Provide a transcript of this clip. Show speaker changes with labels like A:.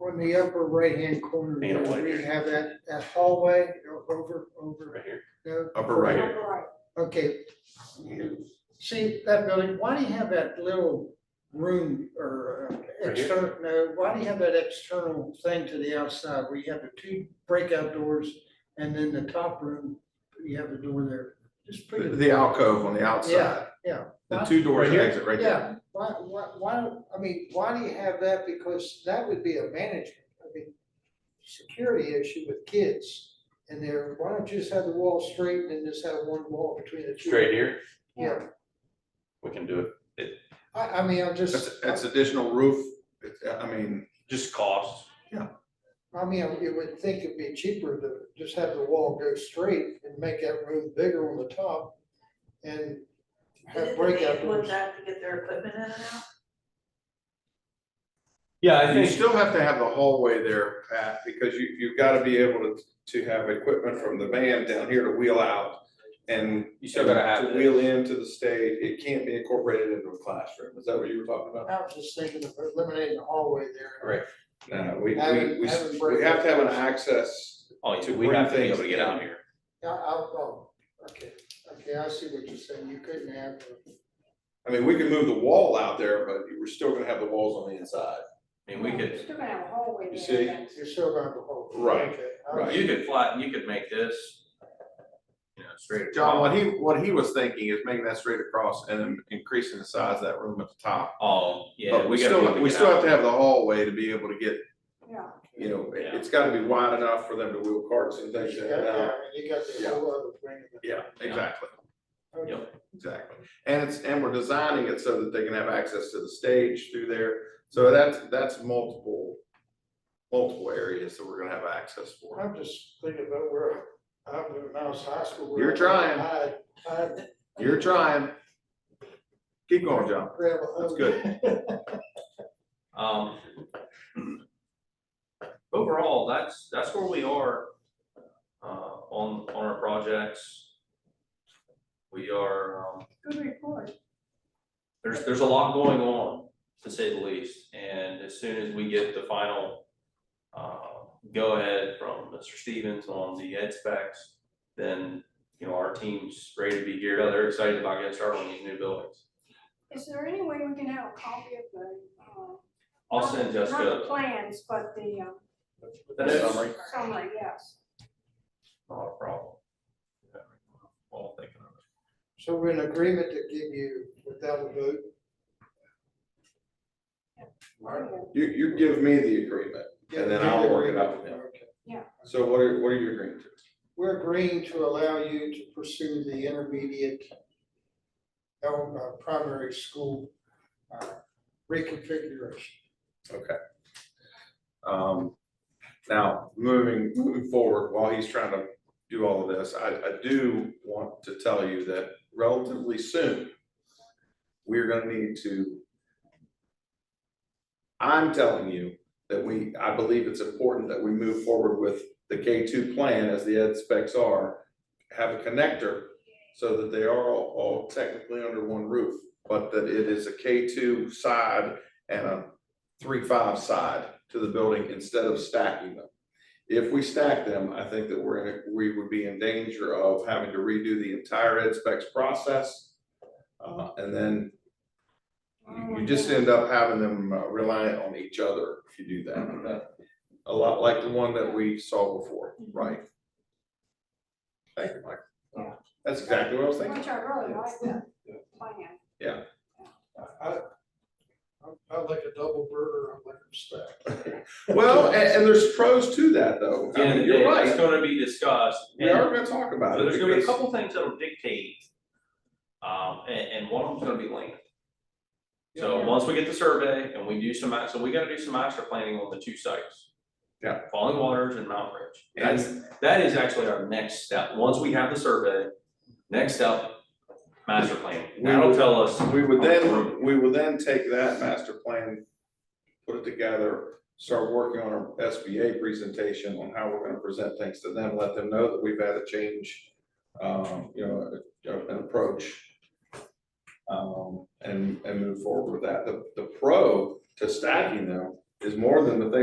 A: on the upper right-hand corner,
B: Hang on,
A: there,
B: wait
A: we
B: here.
A: have that, that hallway, o- over, over,
B: right here.
A: no?
C: Upper right.
A: Okay. See, that building, why do you have that little room or uh,
B: Right here?
A: external, no, why do you have that external thing to the outside where you have the two breakout doors and then the top room, you have the door there? Just put
C: The
A: it,
C: the alcove on the outside.
A: yeah.
C: The two doors
B: Right here?
C: exit right there.
A: Yeah, why, why, why, don't- I mean, why do you have that? Because that would be a management, I mean, security issue with kids. And there, why don't you just have the wall straight and then just have one wall between the two?
B: Straight here,
A: Yeah,
B: we can do it.
A: I, I mean, I'm
C: That's,
A: just,
C: that's additional roof, It's- I mean,
B: Just cost.
A: I mean, you would think it'd be cheaper to just have the wall go straight and make that room bigger on the top and have
D: Did they
A: breakout
D: want
A: doors.
D: that to get their equipment in and out?
B: Yeah, I
C: you
B: think,
C: still have to have the hallway there, Pat, because you, you've got to be able to, to have equipment from the van down here to wheel out. And
B: You still gotta have
C: to
B: it.
C: Wheel into the stage, it can't be incorporated into a classroom, is that what you were talking about?
A: I was just thinking of eliminating the hallway there.
B: right,
C: No, we, we,
A: Having-
C: we,
A: having
C: s- we
A: breakout
C: have to have an
A: doors.
C: access,
B: oh,
C: To
B: we have to be
C: bring
B: able to
C: things
B: get out here.
A: I, I, oh, okay, okay, I see what you're saying. You couldn't have the
C: I mean, we can move the wall out there, but we're still gonna have the walls on the inside.
B: I mean, we
E: You're
B: could,
E: still gonna have a hallway
C: You
E: there,
C: see?
E: that's-
A: You're still gonna have to hold. it.
C: Right,
A: Okay, I-
C: right.
B: you could flatten, you could make this, you know, straight.
C: John, what he, what he was thinking is making that straight across and then increasing the size of that room at the top.
B: Oh, yeah,
C: But we
B: we gotta be able
C: still,
B: to
C: we
B: get
C: still
B: out.
C: have to have the hallway to be able to get,
E: yeah.
C: you know, it-
B: Yeah.
C: it's gotta be wide enough for them to wheel carts and things.
A: You
C: in
A: got,
C: and out.
A: yeah, you got the whole other thing. of it.
C: Yeah, exactly,
A: Okay.
B: Yep.
C: exactly. And it's, and we're designing it so that they can have access to the stage through there. So that's, that's multiple, multiple areas that we're gonna have access for.
A: I'm just thinking about where I'm doing now, it's high school. where
C: You're
A: I-
C: trying.
A: I, I
C: You're trying. Keep going, John.
A: grab a.
C: That's
A: hose.
C: good.
B: Um. Overall, that's, that's where we are, uh, on, on our projects. We are, um,
E: Good report.
B: there's, there's a lot going on, to say the least, and as soon as we get the final, uh, go-ahead from Mr. Stevens on the ed specs, then, you know, our team's ready to be geared up, they're excited about getting started on these new buildings.
E: Is there any way we can have a copy of the, uh?
B: I'll
E: not the-
B: send
E: Not the
B: Jessica,
E: plans, but the, um,
B: That is-
C: Summary.
E: summary, yes.
B: not a problem. All thinking of it.
A: So we're in agreement to give you without a vote.
C: You, you give me the agreement. And then I'll work it out with him.
A: Okay.
C: So what are, what are you agreeing to?
A: We're agreeing to allow you to pursue the intermediate el- uh, primary school uh, reconfiguration.
C: Um, now, moving, moving forward, while he's trying to do all of this, I, I do want to tell you that relatively soon, we're gonna need to, I'm telling you that we, I believe it's important that we move forward with the K two plan as the ed specs are, have a connector so that they are all, all technically under one roof, but that it is a K two side and a three, five side to the building instead of stacking them. If we stack them, I think that we're in, we would be in danger of having to redo the entire ed specs process. Uh, and then you- you just end up having them uh, reliant on each other if you do that.
B: Mm-hmm.
C: That- A lot like the one that we saw before,
B: Mm-hmm.
C: right? Thank you, Mike.
E: Yeah.
C: That's exactly what I was thinking.
E: Which I really like that plan.
A: I, I, I like a double burger, I like a stack.
C: Well, and, and there's pros to that though.
B: At the
C: I
B: end
C: mean,
B: of the day,
C: you're
B: It's
C: right.
B: gonna be discussed.
C: We
B: and-
C: are gonna talk about
B: So
C: it.
B: there's gonna be a
C: Uh, because-
B: couple things that'll dictate, um, and, and one of them's gonna be land. So
E: Yeah.
B: once we get the survey and we do some, ma- so we gotta do some master planning on the two sites.
C: Yeah.
B: Falling Waters and Mount Ridge. That's, that is actually our next step. Once we have the survey, next step, master planning.
C: We
B: That'll
C: would-
B: tell us,
C: We would then, we would then take that master plan, put it together, start working on our SBA presentation on how we're gonna present things to them, let them know that we've had a change, um, you know, a- an approach. Um, and, and move forward with that. The, the pro to stacking them is more than the thing